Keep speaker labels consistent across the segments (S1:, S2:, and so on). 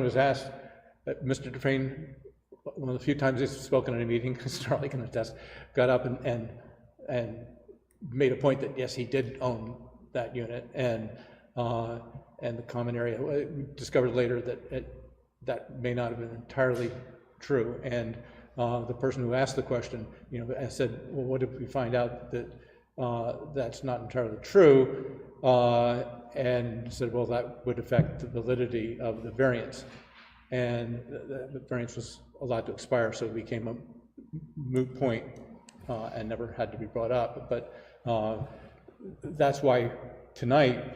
S1: was asked, uh, Mr. Dufrain, one of the few times he's spoken at a meeting, Starley can attest, got up and, and, and made a point that, yes, he did own that unit, and, uh, and the common area, Uh, we discovered later that it, that may not have been entirely true, and, uh, the person who asked the question, you know, and said, well, what if we find out that, uh, that's not entirely true? Uh, and said, well, that would affect the validity of the variance. And the, the variance was allowed to expire, so it became a moot point, uh, and never had to be brought up. But, uh, that's why tonight,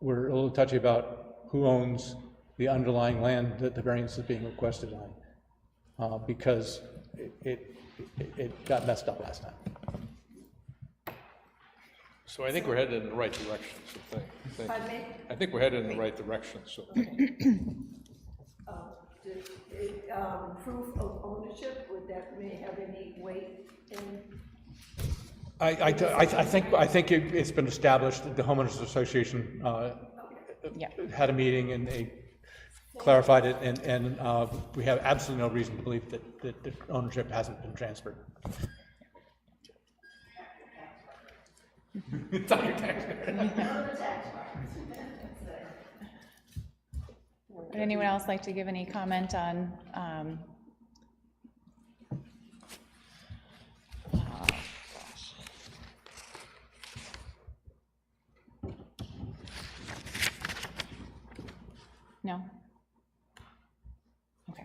S1: we're a little touchy about who owns the underlying land that the variance is being requested on, uh, because it, it, it got messed up last time.
S2: So I think we're headed in the right direction, so thank, thank you.
S3: Pardon me?
S2: I think we're headed in the right direction, so,
S3: Uh, Did, um, Proof of ownership, would that may have any weight in,
S1: I, I, I I think, I think it- it's been established that the homeowners association, uh,
S4: Yeah.
S1: had a meeting and they clarified it, and, and, uh, we have absolutely no reason to believe that, that the ownership hasn't been transferred. It's on your tax
S4: Would anyone else like to give any comment on, um, no? Okay,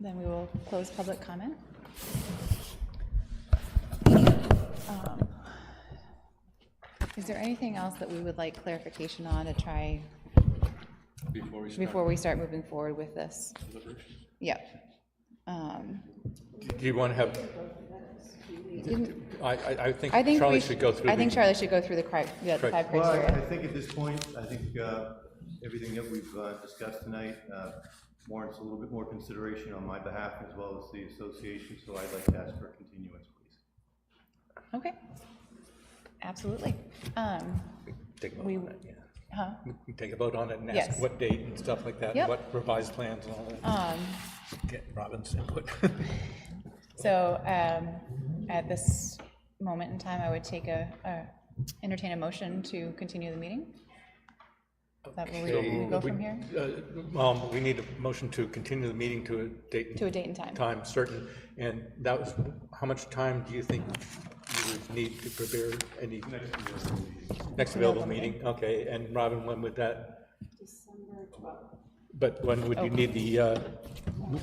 S4: then we will close public comment. Um, Is there anything else that we would like clarification on to try
S2: before we start
S4: before we start moving forward with this.
S2: deliberation.
S4: Yep. Um,
S1: Do you want to have, I, I, I think
S4: I think
S1: Charlie
S4: we
S1: should go through.
S4: I think
S1: the-
S4: Charlie should go through the cri- yeah, the
S1: Right.
S4: five
S5: Well, I- I
S4: criteria.
S5: think at this point, I think uh, everything that we've uh, discussed tonight uh, warrants a little bit more consideration on my behalf as well as the association, so I'd like to ask for a continuance, please.
S4: Okay. Absolutely. Um,
S1: Take a vote
S4: we-
S1: on it, yeah.
S4: huh?
S1: We can Take a vote on it and ask
S4: Yes.
S1: what date and stuff like that,
S4: Yep.
S1: what revised plans and all that.
S4: Um,
S1: Get Robin's input.
S4: So um, at this moment in time, I would take a, a- entertain a motion to continue the meeting? Is that where we go from here?
S1: Uh, Um, we need a motion to continue the meeting to a date.
S4: To a date and time.
S1: Time certain, and that was, how much time do you think you would need to prepare any? Next available meeting, okay, and Robin, when would that? But when would you need the, uh,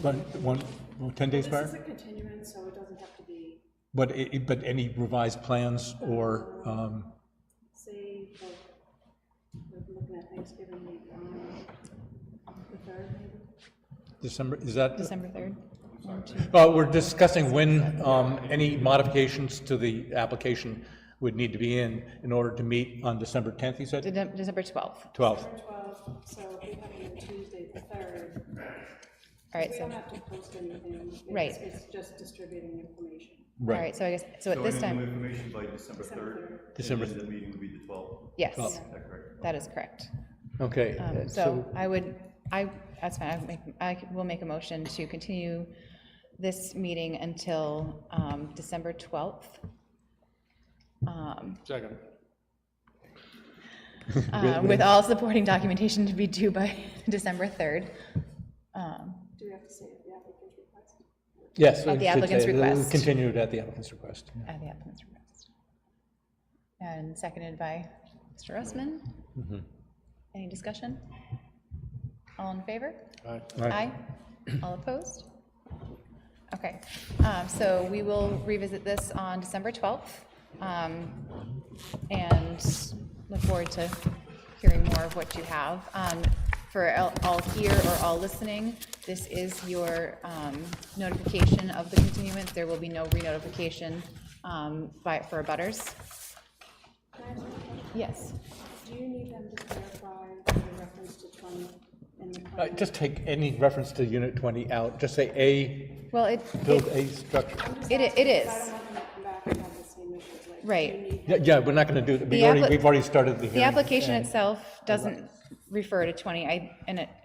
S1: one, one, well, 10 days prior?
S6: This is a continuance, so it doesn't have to be,
S1: But, i- i- but any revised plans or, um,
S6: say, like, we're looking at Thanksgiving week, um, the third, maybe?
S1: December, is that?
S4: December 3rd? One, two.
S1: Well, Uh, we're discussing when um, any modifications to the application would need to be in, in order to meet on December 10th, you said?
S4: Decem- December 12th.
S1: 12th.
S6: Or 12, so we have it on Tuesday, the third.
S4: All right,
S6: We
S4: so,
S6: don't have to post anything. It's-
S4: Right.
S6: It's just distributing information.
S4: all right, so I guess, so at this
S5: So any new
S4: time,
S5: information by December 3rd?
S1: December
S5: And then the meeting would be the 12th,
S4: yes,
S5: is that correct?
S4: that is correct.
S1: Okay.
S4: Um,
S1: uh,
S4: So I would, I, that's fine, I make, I will make a motion to continue this meeting until um, December 12th. um,
S2: Second.
S4: uh, With all supporting documentation to be due by December 3rd. Um,
S6: Do we have to say it, the applicant's request?
S1: Yes.
S4: At the
S1: it should
S4: applicant's
S1: say, uh,
S4: request.
S1: Continued at the applicant's request. yeah.
S4: At the applicant's request. And seconded by Mr. Russman. Mm-hmm. Any discussion? All in favor? Aye. All opposed? Okay, um, so we will revisit this on December 12th, um, and look forward to hearing more of what you have. Um, For all- all here or all listening, this is your um, notification of the continuance. There will be no re-notification um, by, for abutters.
S6: Can I ask you a question?
S4: Yes.
S6: Do you need them to clarify the reference to 20 in the
S1: Uh,
S6: plan?
S1: Just take any reference to Unit 20 out, just say A,
S4: Well, it,
S1: build a structure.
S6: I'm just
S4: it-
S6: asking
S4: it is.
S6: 'cause I don't want them to come back and have the same issues, like, do you
S4: Right.
S6: need
S1: Yeah, Yeah, we're not going to do, that. we
S4: The
S1: already,
S4: appli-
S1: we've already started the
S4: The
S1: hearing.
S4: application itself doesn't refer to 20, I, and it,